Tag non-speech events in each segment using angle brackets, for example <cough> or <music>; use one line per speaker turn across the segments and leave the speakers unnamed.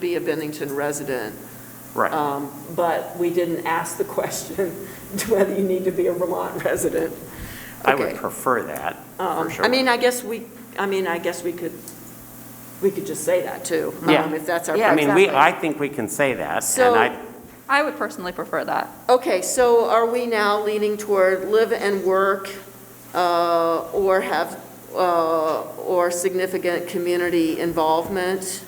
be a Bennington resident.
Right.
Um, But we didn't ask the <laughs> question whether you need to be a Vermont resident.
I would
Okay.
prefer that, for
Um,
sure.
I mean, I guess we, I mean, I guess we could, we could just say that too.
Yeah.
um, If that's our.
I mean, we,
preference.
I think we can say that, and
So-
I,
I would personally prefer that.
Okay, so are we now leaning toward live and work, uh, or have, uh, or significant community involvement?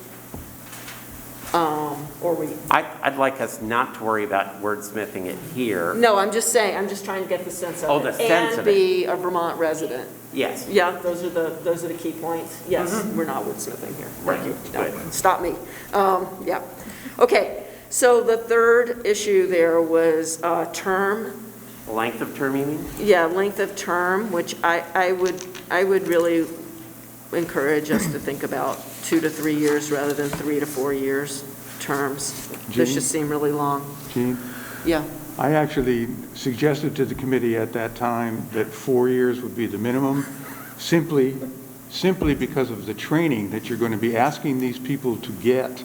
Um, Or we,
I, I'd like us not to worry about wordsmithing it here.
no, I'm just saying, I'm just trying to get the sense of it.
Oh, the sense
And
of it.
be a Vermont resident.
Yes,
Yeah, those are the, those are the key points. Yes, we're not woodsmithing here. Thank you.
Mm-hmm. Right,
No, Stop me. Um, Yeah. Okay, so the third issue there was uh, term.
length of term, you mean?
Yeah, length of term, which I, I would, I would really encourage us to think about two to three years rather than three to four years terms. This
Jean?
just seem really long.
Gene,
Yeah,
I actually suggested to the committee at that time that four years would be the minimum, simply, simply because of the training that you're going to be asking these people to get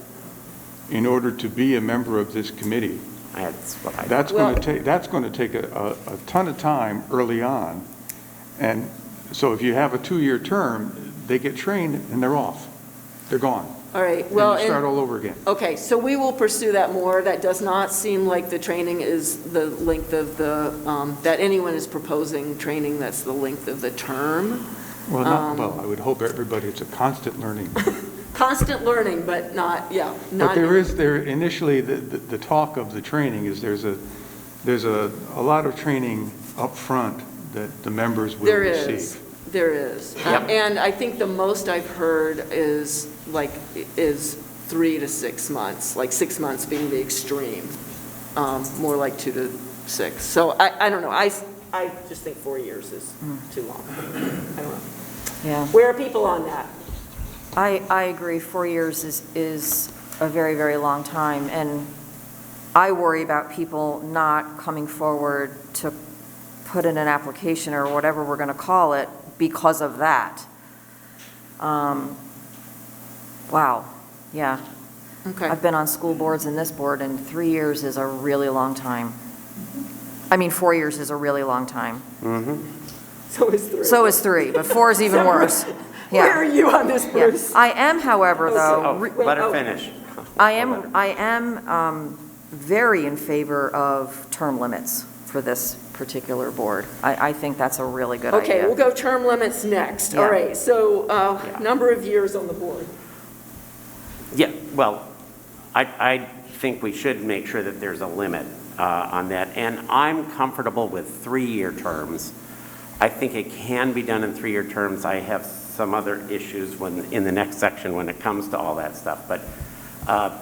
in order to be a member of this committee.
That's what I.
That's going
Well-
to take, that's going to take a, a a ton of time early on. And so if you have a two-year term, they get trained and they're off. They're gone.
all right,
And
well,
you
and-
start all over again.
okay, so we will pursue that more. That does not seem like the training is the length of the, um, that anyone is proposing training that's the length of the term.
Well, not,
Um,
well, I would hope everybody, it's a constant learning
Constant learning, but not, yeah, not.
But there is, there, initially, the, the the talk of the training is there's a, there's a, a lot of training up front that the members will
There
receive.
is, there is. Uh,
Yep.
And I think the most I've heard is like, is three to six months, like six months being the extreme, um, more like two to six. So I, I don't know, I, I just think four years is too long. I don't know.
Hmm. Yeah,
Where are people on that?
I, I agree, four years is, is a very, very long time, and I worry about people not coming forward to put in an application or whatever we're going to call it because of that. Um, Wow, yeah.
Okay,
I've been on school boards and this board, and three years is a really long time. I mean, four years is a really long time.
Mhm.
<laughs> so is three.
So is three, but four is even
So-
worse. Yeah.
Where are you on this,
Yeah.
Bruce?
I am, however,
Oh,
though,
Oh,
re-
let her
oh.
finish.
I
Let her-
am, I am um, very in favor of term limits for this particular board. I, I think that's a really good
Okay, we'll
idea.
go term limits next. All
Yeah.
right, so, uh,
Yeah.
number of years on the board.
Yeah, well, I, I think we should make sure that there's a limit uh, on that, and I'm comfortable with three-year terms. I think it can be done in three-year terms. I have some other issues when, in the next section when it comes to all that stuff, but uh,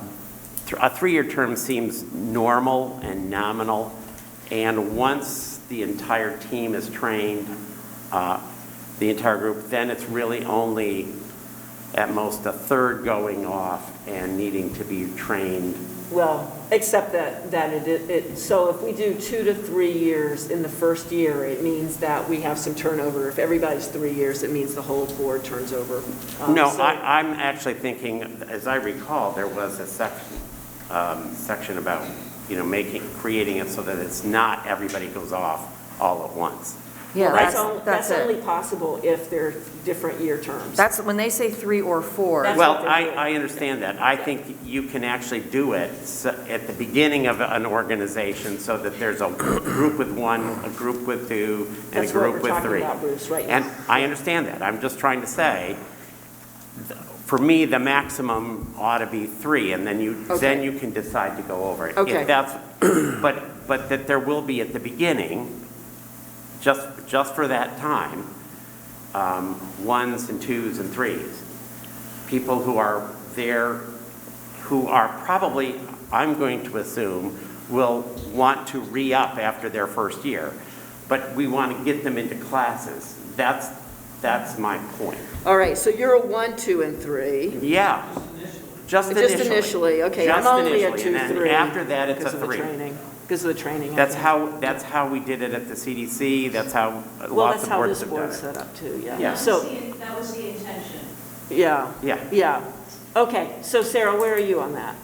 th- a three-year term seems normal and nominal, and once the entire team is trained, uh, the entire group, then it's really only at most a third going off and needing to be trained.
Well, except that, that it- it, it, so if we do two to three years in the first year, it means that we have some turnover. If everybody's three years, it means the whole board turns over. Um,
No,
so-
I, I'm actually thinking, as I recall, there was a section, um, section about, you know, making, creating it so that it's not everybody goes off all at once.
Yeah,
Well,
that's,
on-
that's
That's only
it.
possible if they're different year terms.
That's, when they say three or four,
That's- what
Well,
they're
I,
doing.
I understand that. I think you can actually do it s- at the beginning of an organization so that there's a group with one, a group with two, and a
That's what
group
we're
with
talking
three.
about, Bruce, right now.
And I understand that. I'm just trying to say, th- for me, the maximum ought to be three, and then you, then
Okay.
you can decide to go over it.
Okay.
If that's, <clears throat> but, but that there will be at the beginning, just, just for that time, um, ones and twos and threes. People who are there, who are probably, I'm going to assume, will want to re-up after their first year, but we want to get them into classes. That's, that's my point.
All right, so you're a one, two, and three.
Yeah, just initially.
Just initially, okay, I'm
Just
only a
initially,
two,
and then
three.
after that, it's a
because of the
three.
training- Because of the training. I
That's
think.
how, that's how we did it at the CDC, that's how
Well,
lots
that's
of
how this
boards have done it.
board's set up too, yeah.
Yeah.
That was
So,
the- That was the intention.
yeah,
Yeah,
yeah. Okay, so Sarah, where are you on that?